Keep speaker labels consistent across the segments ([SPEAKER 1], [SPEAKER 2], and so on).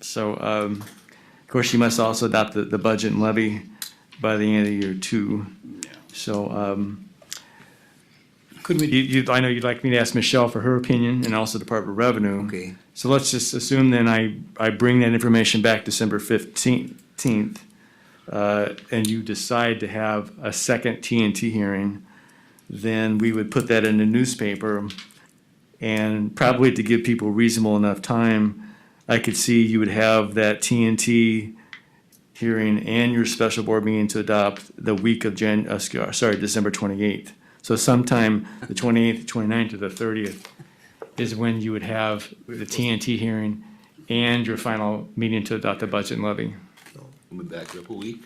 [SPEAKER 1] So, um, of course, you must also adopt the, the budget and levy by the end of year two. So, um,
[SPEAKER 2] Could we,
[SPEAKER 1] you, you, I know you'd like me to ask Michelle for her opinion and also Department of Revenue.
[SPEAKER 3] Okay.
[SPEAKER 1] So let's just assume then I, I bring that information back December fifteenth, uh, and you decide to have a second TNT hearing, then we would put that in the newspaper. And probably to give people reasonable enough time, I could see you would have that TNT hearing and your special board meeting to adopt the week of Jan, uh, sc- sorry, December twenty-eighth. So sometime the twenty-eighth, twenty-ninth, or the thirtieth is when you would have the TNT hearing and your final meeting to adopt the budget and levy.
[SPEAKER 3] We'll be back up a week.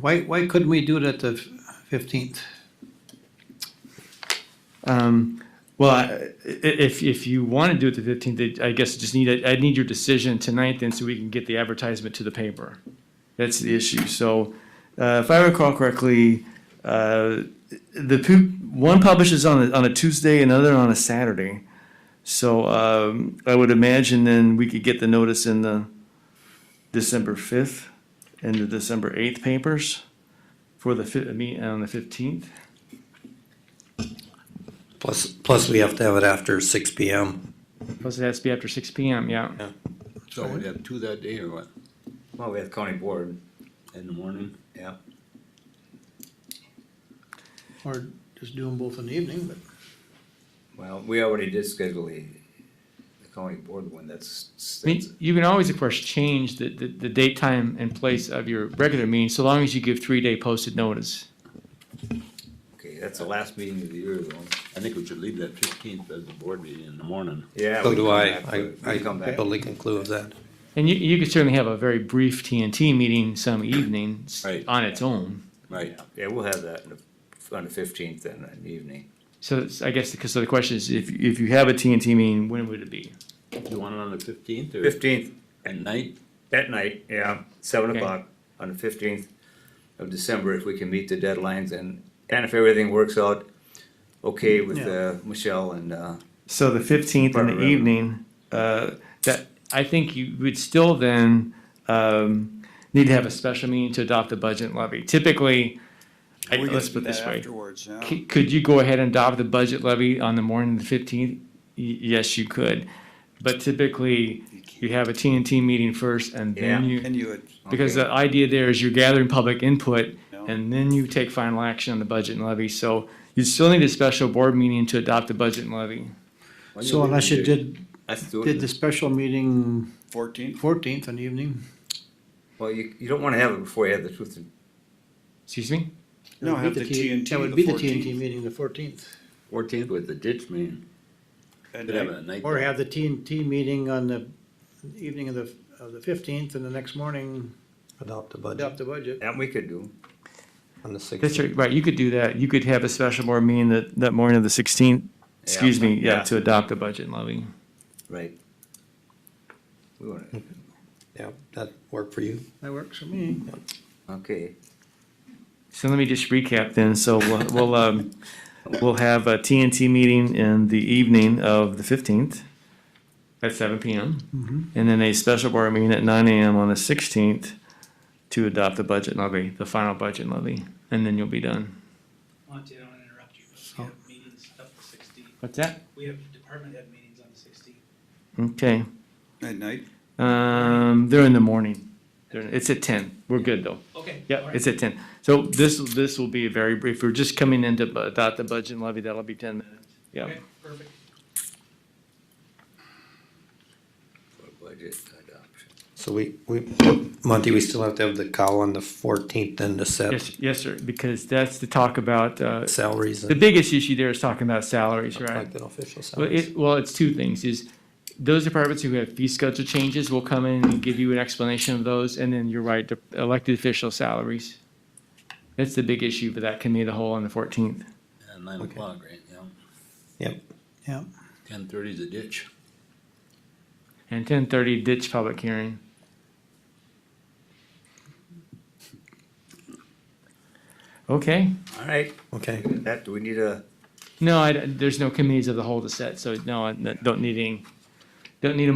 [SPEAKER 2] why, why couldn't we do it at the fifteenth?
[SPEAKER 1] Well, I- i- if, if you want to do it the fifteenth, I guess just need, I'd need your decision tonight then so we can get the advertisement to the paper. That's the issue. So, uh, if I recall correctly, uh, the, pu- one publishes on a, on a Tuesday, another on a Saturday. So, um, I would imagine then we could get the notice in the December fifth and the December eighth papers for the fi- meet on the fifteenth.
[SPEAKER 4] Plus, plus we have to have it after six P M.
[SPEAKER 1] Plus it has to be after six P M, yeah.
[SPEAKER 3] So we'd have two that day or what?
[SPEAKER 5] Well, we have county board.
[SPEAKER 3] In the morning? Yeah.
[SPEAKER 2] Or just do them both in the evening, but
[SPEAKER 5] Well, we already did schedule the, the county board one, that's,
[SPEAKER 1] I
[SPEAKER 5] that's,
[SPEAKER 1] mean, you can always, of course, change the, the, the date, time, and place of your regular meeting, so long as you give three-day posted notice.
[SPEAKER 5] okay, that's the last meeting of the year though.
[SPEAKER 3] I think we should leave that fifteenth as the board meeting in the morning.
[SPEAKER 5] Yeah.
[SPEAKER 4] So
[SPEAKER 5] we
[SPEAKER 4] do
[SPEAKER 5] come
[SPEAKER 4] I,
[SPEAKER 5] back
[SPEAKER 4] I,
[SPEAKER 5] to it. We
[SPEAKER 4] I
[SPEAKER 5] come back.
[SPEAKER 4] totally conclude with that.
[SPEAKER 1] And you, you could certainly have a very brief TNT meeting some evenings
[SPEAKER 3] Right.
[SPEAKER 1] on its own.
[SPEAKER 3] Right.
[SPEAKER 5] Yeah, we'll have that in the- on the fifteenth then, in the evening.
[SPEAKER 1] So it's- I guess, because, so the question is, if, if you have a TNT meeting, when would it be?
[SPEAKER 3] You want it on the fifteenth or
[SPEAKER 5] Fifteenth,
[SPEAKER 3] at night?
[SPEAKER 5] at night, yeah, seven
[SPEAKER 1] Okay.
[SPEAKER 5] o'clock on the fifteenth of December, if we can meet the deadlines and, and if everything works out okay with, uh, Michelle and, uh,
[SPEAKER 1] So the fifteenth in the
[SPEAKER 5] Barbara.
[SPEAKER 1] evening, uh, that, I think you would still then, um, need to have a special meeting to adopt the budget and levy. Typically, I-
[SPEAKER 6] We gotta
[SPEAKER 1] let's
[SPEAKER 6] do
[SPEAKER 1] put it
[SPEAKER 6] that
[SPEAKER 1] this way.
[SPEAKER 6] afterwards, yeah.
[SPEAKER 1] C- Could you go ahead and adopt the budget levy on the morning of the fifteenth? Yes, you could, but typically, you have a TNT meeting first and then
[SPEAKER 5] Yeah.
[SPEAKER 1] you,
[SPEAKER 6] And you would,
[SPEAKER 1] because
[SPEAKER 5] Okay.
[SPEAKER 1] the idea there is you're gathering public input
[SPEAKER 6] Yeah.
[SPEAKER 1] and then you take final action on the budget and levy, so you still need a special board meeting to adopt the budget and levy.
[SPEAKER 3] When
[SPEAKER 2] so unless you
[SPEAKER 3] leaving, Jake?
[SPEAKER 2] did,
[SPEAKER 5] let's do
[SPEAKER 2] did the
[SPEAKER 5] it.
[SPEAKER 2] special meeting
[SPEAKER 6] fourteenth,
[SPEAKER 2] fourteenth in the evening,
[SPEAKER 5] Well, you, you don't wanna have it before you have the truth and
[SPEAKER 1] Excuse me?
[SPEAKER 2] that
[SPEAKER 6] no,
[SPEAKER 2] would
[SPEAKER 6] have
[SPEAKER 2] be
[SPEAKER 6] the
[SPEAKER 2] T-
[SPEAKER 6] TNT
[SPEAKER 2] That would be the TNT
[SPEAKER 6] 14th.
[SPEAKER 2] meeting, the fourteenth,
[SPEAKER 3] Fourteenth with the ditch meeting.
[SPEAKER 6] And
[SPEAKER 3] Could have
[SPEAKER 6] I-
[SPEAKER 3] a night.
[SPEAKER 2] or have the TNT meeting on the evening of the, of the fifteenth, and the next morning
[SPEAKER 4] Adopt the budget
[SPEAKER 2] adopt the budget.
[SPEAKER 5] that we could do.
[SPEAKER 4] on the
[SPEAKER 1] That's
[SPEAKER 4] sixth.
[SPEAKER 1] right, right, you could do that, you could have a special board meeting that, that morning of the sixteenth, excuse me, yeah,
[SPEAKER 5] Yeah.
[SPEAKER 1] to adopt the budget and levy.
[SPEAKER 5] Right. We want
[SPEAKER 4] Hmm.
[SPEAKER 5] to,
[SPEAKER 4] Yeah, that work for you?
[SPEAKER 2] That works for me.
[SPEAKER 5] okay,
[SPEAKER 1] So let me just recap then. So we'll, we'll, um, we'll have a TNT meeting in the evening of the fifteenth at seven PM.
[SPEAKER 7] Mm-hmm.
[SPEAKER 1] And then a special board meeting at nine AM on the sixteenth to adopt the budget levy, the final budget levy, and then you'll be done.
[SPEAKER 7] Monty, I don't want to interrupt you, but we have meetings up to sixteen.
[SPEAKER 1] What's that?
[SPEAKER 7] We have department head meetings on the sixteen.
[SPEAKER 1] Okay,
[SPEAKER 6] at night,
[SPEAKER 1] um, they're in the morning. They're, it's at ten. We're good though.
[SPEAKER 7] Okay. all
[SPEAKER 1] Yeah,
[SPEAKER 7] right.
[SPEAKER 1] it's at ten. So this, this will be very brief. We're just coming in to adopt the budget levy. That'll be ten minutes. Yeah.
[SPEAKER 7] Okay, perfect.
[SPEAKER 3] For budget
[SPEAKER 5] uh,
[SPEAKER 3] adoption.
[SPEAKER 4] So we, we, Monty, we still have to have the call on the fourteenth then to set
[SPEAKER 1] Yes, yes, sir, because that's to talk about, uh,
[SPEAKER 4] salaries
[SPEAKER 1] the
[SPEAKER 4] and
[SPEAKER 1] biggest issue there is talking about salaries, right?
[SPEAKER 4] elected official
[SPEAKER 1] Well,
[SPEAKER 4] salaries.
[SPEAKER 1] it, well, it's two things, is those departments who have fee schedule changes will come in and give you an explanation of those, and then you're right, the elected official salaries. That's the big issue for that committee of the whole on the fourteenth.
[SPEAKER 3] At nine
[SPEAKER 4] Okay.
[SPEAKER 3] o'clock, right? Yeah.
[SPEAKER 4] Yep,
[SPEAKER 2] Yeah,
[SPEAKER 3] Ten thirty is the ditch.
[SPEAKER 1] And ten thirty ditch public hearing. Okay,
[SPEAKER 5] all right,
[SPEAKER 4] okay.
[SPEAKER 5] that, do we need a,
[SPEAKER 1] no, I, there's no committees of the whole to set, so no, I don't need any, don't need a